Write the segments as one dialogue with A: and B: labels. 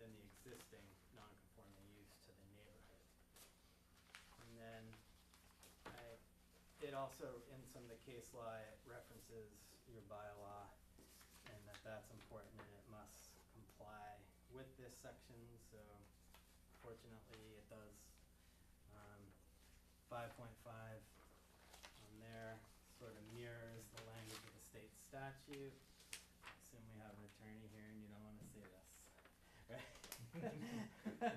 A: existing non-conforming use to the neighborhood. And then I, it also, in some of the case law, it references your bylaw and that that's important and it must comply with this section, so fortunately it does. Um, five point five on there sort of mirrors the language of the state statute. Assume we have an attorney here and you don't wanna see this, right?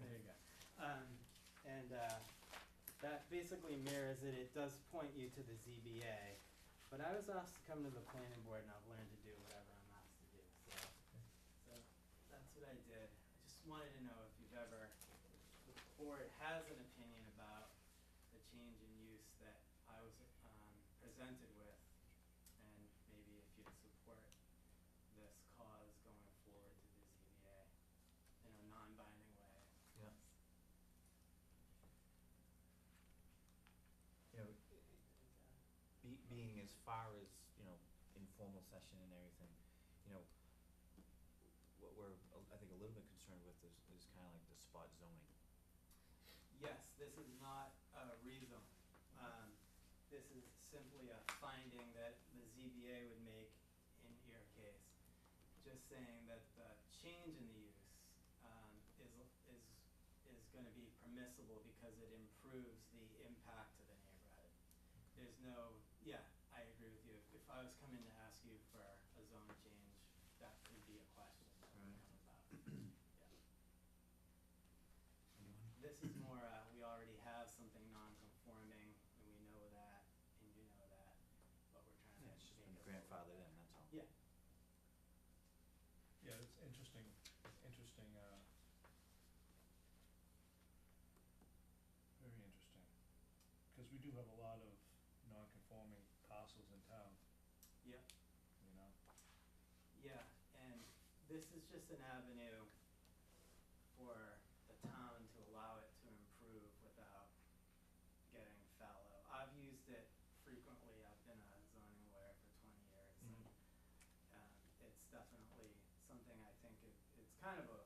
A: There you go. Um, and, uh, that basically mirrors it, it does point you to the ZBA. But I was asked to come to the planning board and I've learned to do whatever I'm asked to do, so. So, that's what I did. I just wanted to know if you've ever, if the board has an opinion about the change in use that I was, um, presented with. And maybe if you'd support this cause going forward to the ZBA in a non-binding way.
B: Yeah. You know, be, being as far as, you know, informal session and everything, you know, what we're, a- I think, a little bit concerned with is, is kinda like the spot zoning.
A: Yes, this is not a rezone. Um, this is simply a finding that the ZBA would make in your case. Just saying that the change in the use, um, is, is, is gonna be permissible because it improves the impact to the neighborhood. There's no, yeah, I agree with you. If I was coming to ask you for a zone change, that could be a question that would
B: Right.
A: come about. Yeah. This is more, uh, we already have something non-conforming, and we know that, and you know that, but we're trying to
B: Yeah,
A: make it. a
B: it's just been
A: little
B: grandfathered
A: bit-
B: in, that's all.
A: Yeah.
C: Yeah, it's interesting, interesting, uh, very interesting, because we do have a lot of non-conforming parcels in town.
A: Yeah.
C: You know,
A: Yeah, and this is just an avenue for the town to allow it to improve without getting fallow. I've used it frequently, I've been a zoning lawyer for twenty years, and, um, it's definitely something I think it, it's kind of a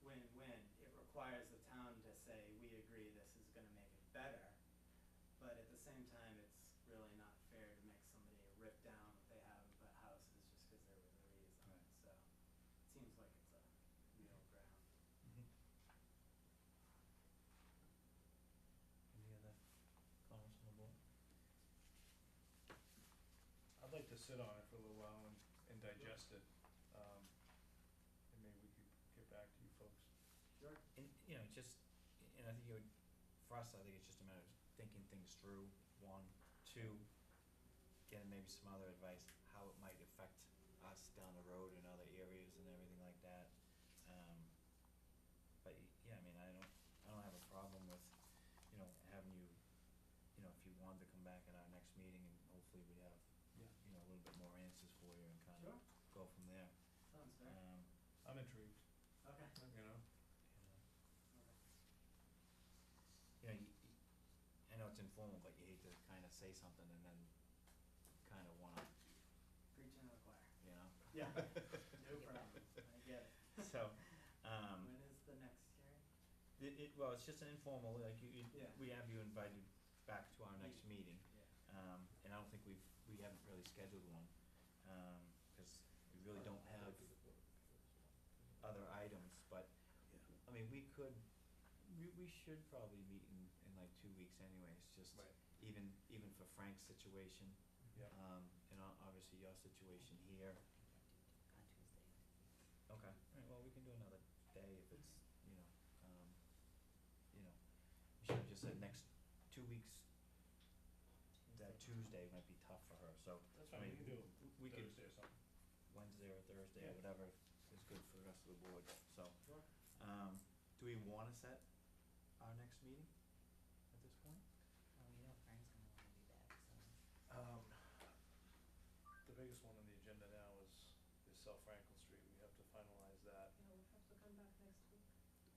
A: win-win. It requires the town to say, we agree this is gonna make it better, but at the same time, it's really not fair to make somebody rip down what they have and put houses just because there was a reason. So
B: Right.
A: it seems like it's a middle ground.
B: Any other comments on the board?
C: I'd like to sit on it for a little while and, and digest it, um, and maybe we could get back to you folks.
A: Sure.
B: And, you know, just, and I think you would, for us, I think it's just a matter of thinking things through, one, two, getting maybe some other advice, how it might affect us down the road in other areas and everything like that. Um, but, y- yeah, I mean, I don't, I don't have a problem with, you know, having you, you know, if you wanted to come back at our next meeting and hopefully we have,
C: Yeah.
B: you know, a little bit more answers for you and kind of
A: Sure,
B: go from there.
A: sounds fair.
B: Um,
C: I'm intrigued,
A: Okay.
C: you know?
B: you know.
A: Okay.
B: you know, you, you- I know it's informal, but you hate to kind of say something and then kind of wanna,
A: Preaching to the choir.
B: you know?
A: Yeah. No problem, I get it.
B: So, um,
A: When is the next hearing?
B: it, it, well, it's just an informal, like you, you,
A: Yeah.
B: we have you invited back to our next meeting.
A: Yeah.
B: Um, and I don't think we've, we haven't really scheduled one, um, cause we really don't have other items, but, I mean, we could, we, we should probably meet in, in like two weeks anyways, just
C: Right.
B: even, even for Frank's situation.
C: Yeah.
B: Um, and o- obviously your situation here. Okay. Alright, well, we can do another day if it's, you know, um, you know, we should've just said next two weeks, that Tuesday might be tough for her, so
C: That's
B: I
C: fine, we
B: mean,
C: can do
B: w- we
C: it
B: could,
C: Thursday or something.
B: Wednesday or Thursday or
C: Yeah.
B: whatever is good for the rest of the board, so.
A: Sure.
B: Um, do we wanna set our next meeting at this point?
D: Well, Oh, you know Frank's gonna wanna be back, so.
C: Um, the biggest one on the agenda now is, is South Franklin Street, we have to finalize that.
E: Yeah, we'll have to come back next week.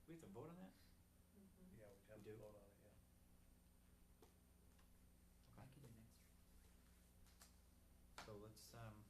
B: We have to vote on that?
E: Mhm.
C: Yeah, we'd have
B: do?
C: to vote on it, yeah.
B: Okay.
D: I can do next.
B: So let's, um,